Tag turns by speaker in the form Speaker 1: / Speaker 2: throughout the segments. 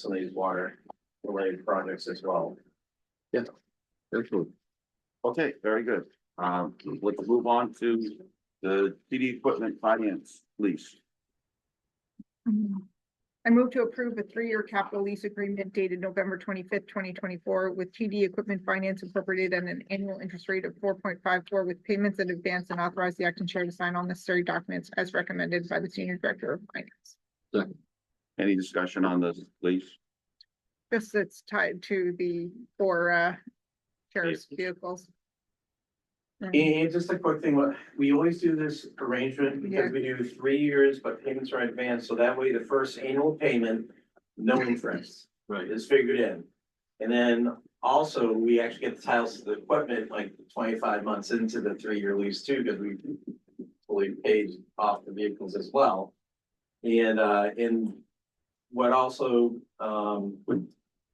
Speaker 1: some of these water related projects as well.
Speaker 2: Excellent. Okay, very good. Um, let's move on to the CD equipment finance lease.
Speaker 3: I move to approve a three-year capital lease agreement dated November twenty-fifth, twenty twenty-four with TD Equipment Finance Incorporated at an annual interest rate of four point five four with payments in advance and authorize the acting chair to sign all necessary documents as recommended by the senior director of finance.
Speaker 2: Any discussion on this lease?
Speaker 3: This is tied to the, for, uh, sheriff's vehicles. And
Speaker 1: And just a quick thing, what- we always do this arrangement because we do three years, but payments are advanced, so that way the first annual payment, no interest.
Speaker 2: Right.
Speaker 1: Is figured in. And then also, we actually get the titles of the equipment like twenty-five months into the three-year lease too, because we fully paid off the vehicles as well. And, uh, and what also, um, would,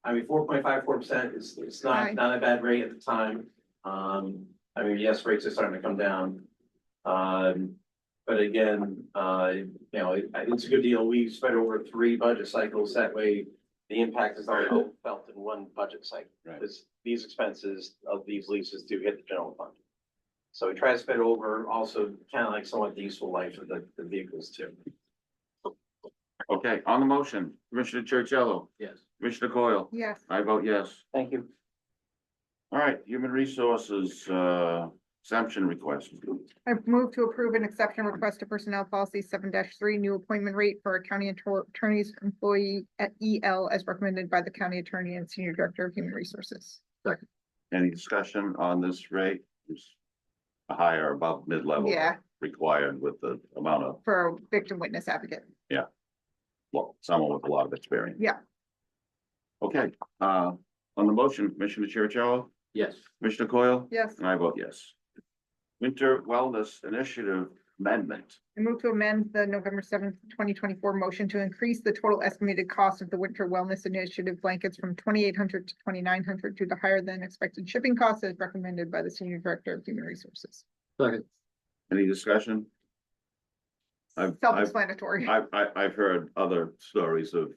Speaker 1: I mean, four point five four percent is, it's
Speaker 3: Aye.
Speaker 1: not, not a bad rate at the time. Um, I mean, yes, rates are starting to come down. Um, but again, uh, you know, it- it's a good deal. We spread over three budget cycles. That way, the impact is not all felt in one budget cycle.
Speaker 2: Right.
Speaker 1: Because these expenses of these leases do hit the general fund. So we try to spread over also kind of like somewhat the useful life of the, the vehicles too.
Speaker 2: Okay, on the motion, Commissioner Chercello,
Speaker 1: Yes.
Speaker 2: Commissioner Coyle,
Speaker 3: Yes,
Speaker 2: I vote yes.
Speaker 1: Thank you.
Speaker 2: All right, human resources, uh, exemption request.
Speaker 3: I move to approve an exception request to personnel policy seven three, new appointment rate for a county attor- attorney's employee at EL as recommended by the county attorney and senior director of human resources.
Speaker 2: Any discussion on this rate? It's Higher above mid-level.
Speaker 3: Yeah.
Speaker 2: Required with the amount of,
Speaker 3: for a victim witness advocate.
Speaker 2: well, someone with a lot of experience.
Speaker 3: Yeah.
Speaker 2: Okay, uh, on the motion, Commissioner Chercello,
Speaker 4: Yes,
Speaker 2: Commissioner Coyle?
Speaker 3: Yes,
Speaker 2: And I vote yes. Winter Wellness Initiative Amendment.
Speaker 3: I move to amend the November seventh, twenty twenty-four motion to increase the total estimated cost of the Winter Wellness Initiative blankets from twenty-eight hundred to twenty-nine hundred due to higher than expected shipping costs as recommended by the Senior Director of Human Resources.
Speaker 4: second,
Speaker 2: Any discussion? I've- I've-
Speaker 3: Self-explanatory.
Speaker 2: I've, I, I've heard other stories of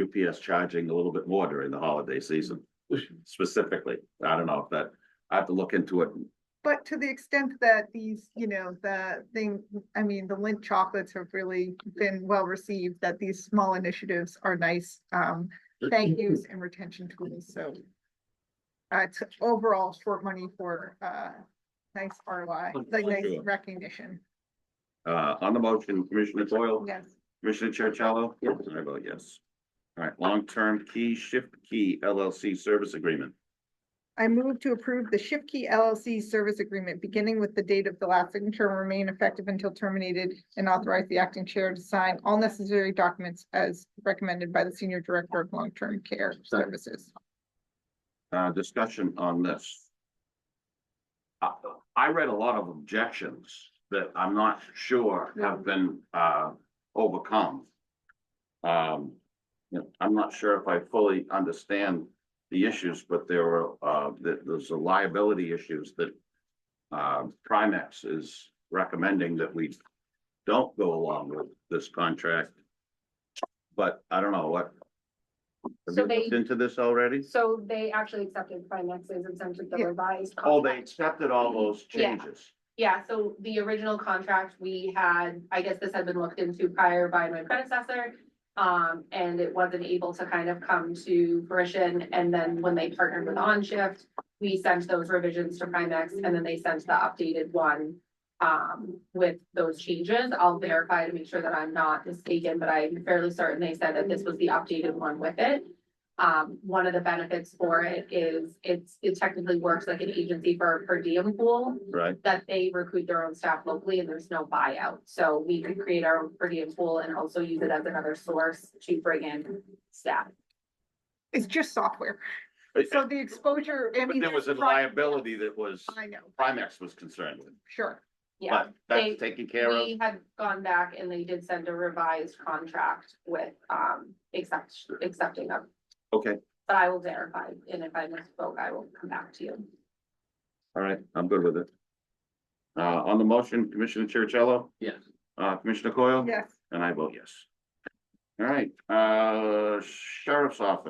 Speaker 2: UPS charging a little bit more during the holiday season specifically. I don't know if that, I have to look into it.
Speaker 3: But to the extent that these, you know, the thing, I mean, the Lint chocolates have really been well received, that these small initiatives are nice, um, thank yous and retention tools, so. Uh, it's overall short money for, uh, nice ROI, like nice
Speaker 2: Sure.
Speaker 3: recognition,
Speaker 2: Uh, on the motion, Commissioner Coyle,
Speaker 3: yes.
Speaker 2: Commissioner Chercello?
Speaker 4: Yes.
Speaker 2: And I vote yes. All right, long-term key shift key LLC service agreement.
Speaker 3: I move to approve the Shift Key LLC service agreement beginning with the date of the last signature and remain effective until terminated and authorize the acting chair to sign all necessary documents as recommended by the Senior Director of Long-Term Care Services.
Speaker 2: uh, discussion on this. I, I read a lot of objections that I'm not sure
Speaker 5: Mm-hmm.
Speaker 2: have been, uh, overcome. Um, you know, I'm not sure if I fully understand the issues, but there were, uh, that there's a liability issues that uh, Primex is recommending that we don't go along with this contract. But I don't know what. Have
Speaker 5: So
Speaker 2: you
Speaker 5: they-
Speaker 2: looked into this already?
Speaker 5: So they actually accepted Primex's exemption, the
Speaker 3: Yeah.
Speaker 5: revised.
Speaker 2: Oh, they
Speaker 5: contract.
Speaker 2: accepted all those
Speaker 5: Yeah.
Speaker 2: changes.
Speaker 5: Yeah, so the original contract we had, I guess this had been looked into prior by my predecessor. Um, and it wasn't able to kind of come to fruition. And then when they partnered with On Shift, we sent those revisions to Primex and then they sent the updated one um, with those changes. I'll verify to make sure that I'm not mistaken, but I'm fairly certain they said that this was the updated one with it. Um, one of the benefits for it is it's, it technically works like an agency for a per diem pool
Speaker 2: Right,
Speaker 5: that they recruit their own staff locally and there's no buyout. So we could create our own per diem pool and also use it as another source to bring in staff.
Speaker 3: It's just software,
Speaker 2: but
Speaker 3: so the exposure, I mean.
Speaker 2: there was a
Speaker 3: there's pri-
Speaker 2: liability that was,
Speaker 3: I know,
Speaker 2: Primex was concerned with,
Speaker 3: sure,
Speaker 5: Yeah,
Speaker 2: but
Speaker 5: They-
Speaker 2: that's taken care of.
Speaker 5: we had gone back and they did send a revised contract with um accept accepting of.
Speaker 2: Okay,
Speaker 5: But I will verify and if I misspoke, I will come back to you.
Speaker 2: all right, I'm good with it. Uh, on the motion, Commissioner Chercello,
Speaker 4: yes,
Speaker 2: uh, Commissioner Coyle?
Speaker 3: yes.
Speaker 2: And I vote yes. All right, uh, sheriff's office.